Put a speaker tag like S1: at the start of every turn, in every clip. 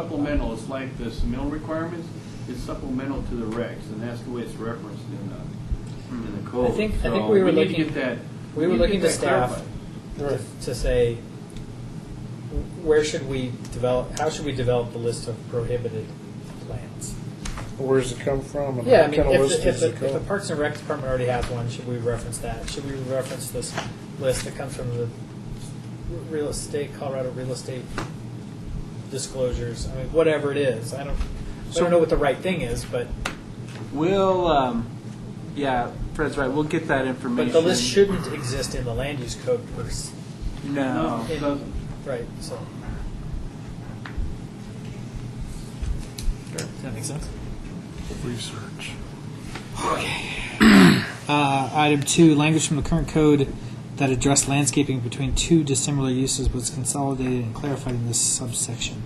S1: Supplemental, it's like this mill requirements, it's supplemental to the regs, and that's the way it's referenced in the, in the code.
S2: I think- I
S1: So
S2: think we were
S1: need to
S2: looking-
S1: get that-
S2: we were
S1: need
S2: looking
S1: get that
S2: to staff.
S1: clarified.
S2: to, to say, wh- where should we develop, how should we develop the list of prohibited plants?
S3: Where does it come from? and
S2: Yeah, I
S3: what
S2: mean,
S3: kind of
S2: if
S3: list
S2: the, if
S3: does
S2: the,
S3: it
S2: if the
S3: come?
S2: Parks and Rec Department already has one, should we reference that? Should we reference this list that comes from the real estate, Colorado real estate disclosures? I mean, whatever it is, I don't, I
S4: So-
S2: don't know what the right thing is, but,
S4: We'll, um, yeah, Fred's right. We'll get that information.
S2: but the list shouldn't exist in the land use code per se.
S4: No.
S1: No, it doesn't.
S2: Right, so. Does that make sense?
S3: Research.
S2: Uh, item two, language from the current code that addressed landscaping between two dissimilar uses was consolidated and clarified in this subsection.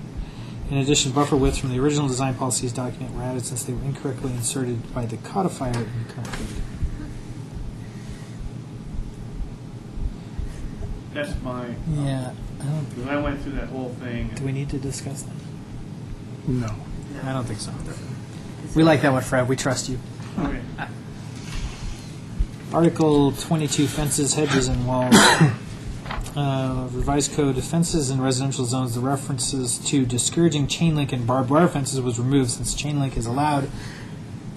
S2: In addition, buffer widths from the original design policies document were added since they were incorrectly inserted by the codifier in the current code.
S1: That's my,
S2: Yeah, I don't,
S1: because I went through that whole thing,
S2: do we need to discuss that?
S3: No.
S2: I don't think so. We like that one, Fred, we trust you.
S1: Okay.
S2: Article 22, fences, hedges, and walls. Uh, Revised code, of fences in residential zones, the references to discouraging chain link and barbed wire fences was removed since chain link is allowed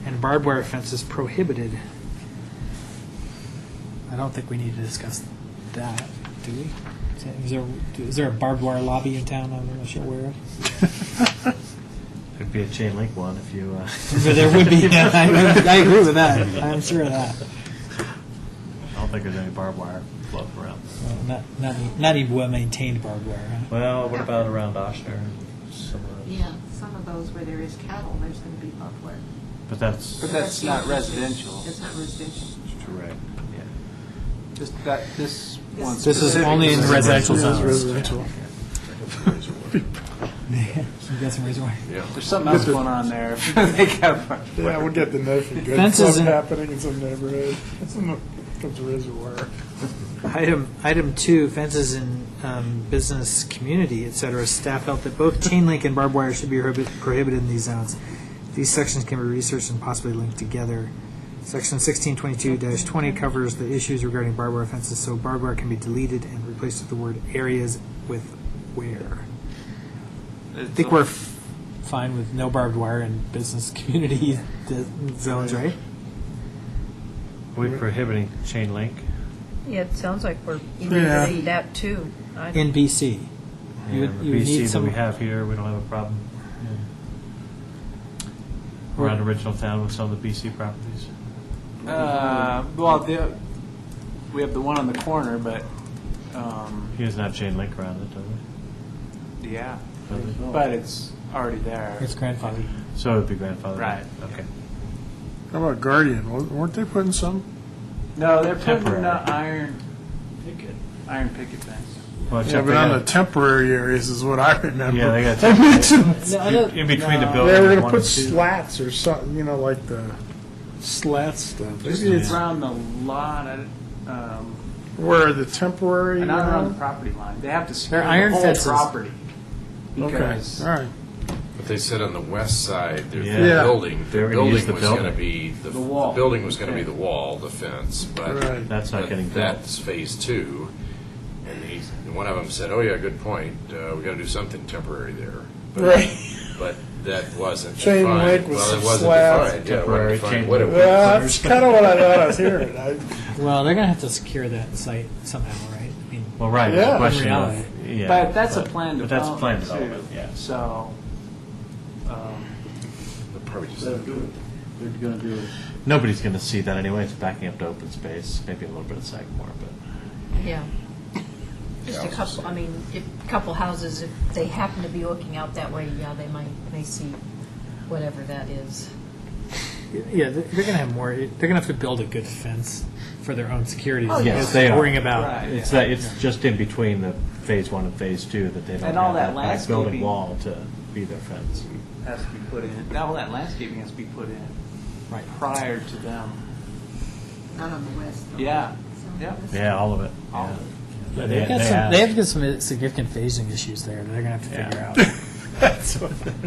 S2: and barbed wire fence is prohibited. I don't think we need to discuss that, do we? Is that- Is there, is there a barbed wire lobby in town I'm not sure where?
S5: Could be a chain link one if you. Uh,
S2: But there would be, I I agree with that, I'm sure of that.
S5: I don't think there's any barbed wire floating around.
S2: Well, Not, not, not even well-maintained barbed wire, huh?
S5: Well, what about around Oshner? and some of those?
S6: Yeah, some of those where there is cattle, there's going to be buckwheat.
S5: But that's
S4: But that's not residential.
S6: It's not residential.
S5: correct. Yeah.
S4: Just that this one.
S2: This is
S4: specific-
S2: only in residential
S3: It is
S2: zones.
S3: residential.
S2: You got some razor wire.
S4: There's something else going on there. They got a-
S3: Yeah, we'll get the note for good
S2: Fences
S3: stuff
S2: and-
S3: happening in some neighborhood. Some- Comes a reservoir.
S2: Item, item two, fences in um, business, community, et cetera. Staff felt that both chain link and barbed wire should be prohibi- prohibited in these zones. These sections can be researched and possibly linked together. Section 1622-20 covers the issues regarding barbed wire fences, so barbed wire can be deleted and replaced with the word areas with where. I think we're f- fine with no barbed wire in business, community d- zones, right?
S5: Are we prohibiting chain link?
S7: Yeah, it sounds like we're
S3: Yeah.
S7: doing that too. I-
S2: In BC. You would-
S5: And the
S2: you would
S5: BC
S2: need
S5: that
S2: some-
S5: we have here, we don't have a problem. We're on original town with some of the BC properties.
S4: Uh, well, the, we have the one on the corner, but, um,
S5: He doesn't have chain link around it, does he?
S4: yeah,
S5: Does he?
S4: but it's already there.
S2: It's grandfathered.
S5: So it would be grandfathered. in.
S4: Right.
S5: Okay.
S3: How about Guardian? Wa- Weren't they putting some?
S4: No, they're putting
S5: Temporary.
S4: the iron picket, iron picket fence.
S5: Well,
S3: Yeah,
S5: except
S3: but
S5: they
S3: on the
S5: got-
S3: temporary areas is what I remember.
S5: Yeah, they got-
S3: They mentioned,
S5: in between the
S3: they
S5: buildings.
S3: were gonna
S5: one and
S3: put
S5: two.
S3: slats or something, you know, like the slat stuff.
S4: It's
S3: Maybe it's
S4: around the lot, I- um,
S3: where the temporary.
S4: and not around the
S3: Okay,
S4: property line. They have to secure
S2: They're iron
S4: the whole
S2: fences.
S4: property.
S3: all
S4: Because
S3: right.
S8: But they said on the west side, their
S5: Yeah.
S3: Yeah.
S8: building,
S5: They were
S8: their
S5: gonna use
S8: building
S5: the
S8: was going to
S5: building.
S8: be, the
S4: The wall.
S8: the building was going to be the wall, the fence, but.
S3: Right.
S5: That's not
S8: but
S5: getting built.
S8: That's phase two, and he, and one of them said, oh yeah, good point, uh, we got to do something temporary there. But-
S3: Right.
S8: But that wasn't
S3: Chain
S8: defined.
S3: link with
S8: Well,
S3: some
S8: it wasn't
S3: slabs.
S8: defined, yeah, it
S5: Temporary
S8: wasn't defined
S5: chain
S8: what it
S5: link.
S8: was.
S3: Well, that's kind of what I thought I was hearing. I,
S2: Well, they're gonna have to secure that site somehow, right? I mean,
S5: Well, right.
S3: Yeah.
S5: The question
S2: Reality.
S5: of, yeah,
S4: But that's a planned
S5: But that's a planned
S4: development
S5: development.
S4: too.
S5: Yeah.
S4: So, um,
S8: They Probably just.
S1: They're doing it. They're gonna do it.
S5: Nobody's going to see that anyway. It's backing up to open space, maybe a little bit of Sagamore, but
S7: Yeah. Just a couple, I mean, if, a couple houses, if they happen to be looking out that way, yeah, they might, may see whatever that is.
S2: yeah, they're they're gonna have more, they're gonna have to build a good fence for their own security.
S7: Oh,
S2: as
S7: yes.
S2: opposed to
S5: They are.
S2: Worrying about,
S4: Right.
S5: it's that it's just in between the phase one and phase two that they don't
S4: And
S5: have
S4: all that
S5: that back building
S4: landscaping.
S5: wall to be their fence.
S4: has to be put in, all that landscaping has to be put in
S2: right,
S4: prior to them.
S6: Not on the west. though.
S4: Yeah,
S6: So
S4: yeah.
S6: that's-
S5: Yeah, all of it.
S4: All
S5: yeah.
S4: of it.
S5: Yeah,
S2: They've got
S5: they
S2: some,
S5: have-
S2: they have got some significant phasing issues there that they're gonna have to
S5: Yeah.
S2: figure out. That's what-